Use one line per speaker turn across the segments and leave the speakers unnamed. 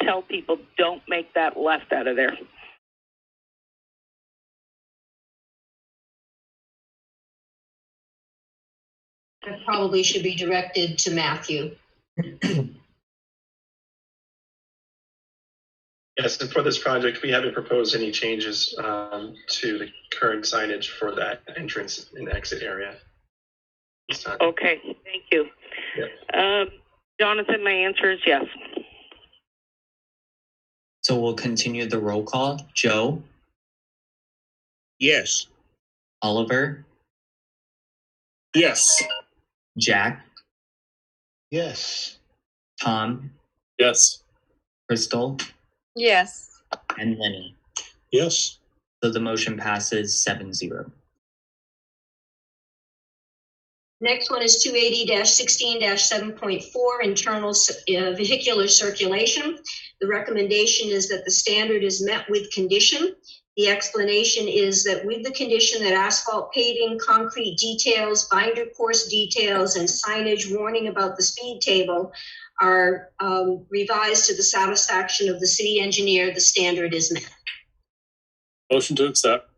tell people don't make that left out of there.
That probably should be directed to Matthew.
Yes, and for this project, we haven't proposed any changes um, to the current signage for that entrance and exit area. This time.
Okay, thank you. Uh, Jonathan, my answer is yes.
So we'll continue the roll call. Joe,
Yes.
Oliver,
Yes.
Jack,
Yes.
Tom,
Yes.
Crystal,
Yes.
and Lenny.
Yes.
So the motion passes 7 0.
Next one is two eighty sixteen seven point four, internal s- uh, vehicular circulation. The recommendation is that the standard is met with condition. The explanation is that with the condition that asphalt paving, concrete details, binder course details, and signage warning about the speed table are um, revised to the satisfaction of the city engineer, the standard is met.
Motion to accept.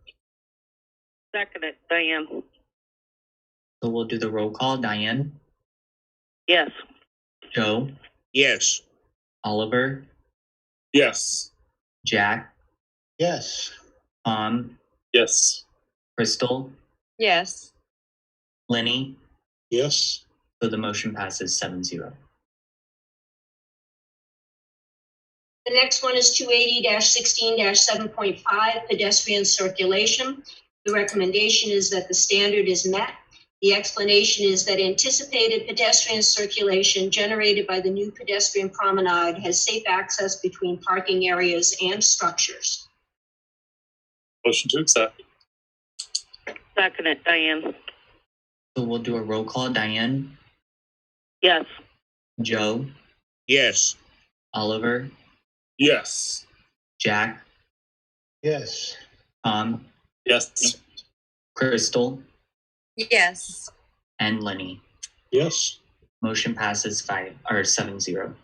Second it, Diane.
So we'll do the roll call. Diane,
Yes.
Joe,
Yes.
Oliver,
Yes.
Jack,
Yes.
Tom,
Yes.
Crystal,
Yes.
Lenny.
Yes.
So the motion passes 7 0.
The next one is two eighty sixteen seven point five pedestrian circulation. The recommendation is that the standard is met. The explanation is that anticipated pedestrian circulation generated by the new pedestrian promenade has safe access between parking areas and structures.
Motion to accept.
Second it, Diane.
So we'll do a roll call. Diane,
Yes.
Joe,
Yes.
Oliver,
Yes.
Jack,
Yes.
Tom,
Yes.
Crystal,
Yes.
and Lenny.
Yes.
Motion passes 5 or 7 0.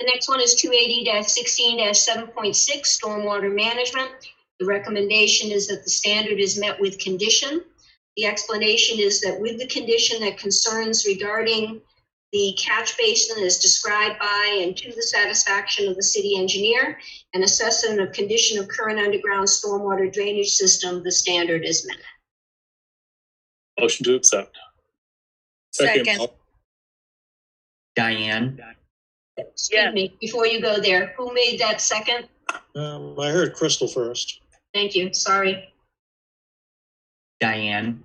The next one is two eighty sixteen seven point six, stormwater management. The recommendation is that the standard is met with condition. The explanation is that with the condition that concerns regarding the catch basin is described by and to the satisfaction of the city engineer, an assessment of condition of current underground stormwater drainage system, the standard is met.
Motion to accept.
Second.
Diane,
Excuse me, before you go there, who made that second?
Um, I heard Crystal first.
Thank you, sorry.
Diane,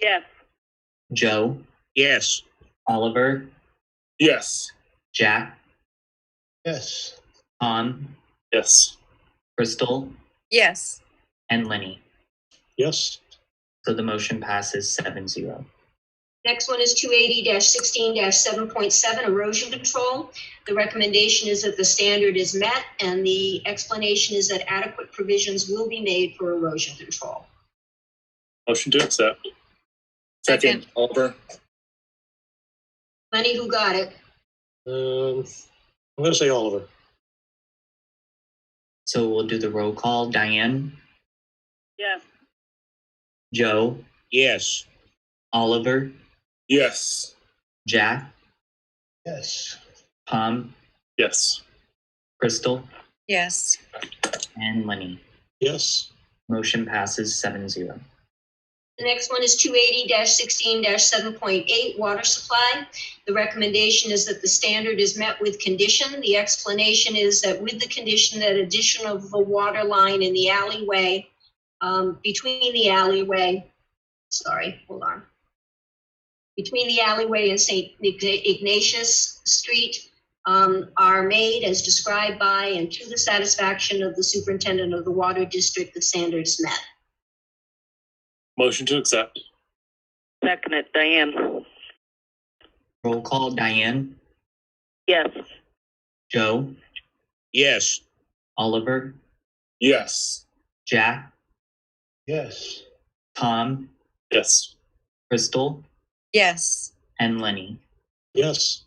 Yes.
Joe,
Yes.
Oliver,
Yes.
Jack,
Yes.
Tom,
Yes.
Crystal,
Yes.
and Lenny.
Yes.
So the motion passes 7 0.
Next one is two eighty sixteen seven point seven erosion control. The recommendation is that the standard is met and the explanation is that adequate provisions will be made for erosion control.
Motion to accept.
Second.
Oliver.
Lenny, who got it?
Um, I'm gonna say Oliver.
So we'll do the roll call. Diane,
Yes.
Joe,
Yes.
Oliver,
Yes.
Jack,
Yes.
Tom,
Yes.
Crystal,
Yes.
and Lenny.
Yes.
Motion passes 7 0.
The next one is two eighty sixteen seven point eight water supply. The recommendation is that the standard is met with condition. The explanation is that with the condition that addition of a water line in the alleyway, um, between the alleyway, sorry, hold on. Between the alleyway and St. Ignatius Street, um, are made as described by and to the satisfaction of the superintendent of the water district, the standard is met.
Motion to accept.
Second it, Diane.
Roll call. Diane,
Yes.
Joe,
Yes.
Oliver,
Yes.
Jack,
Yes.
Tom,
Yes.
Crystal,
Yes.
and Lenny.
Yes.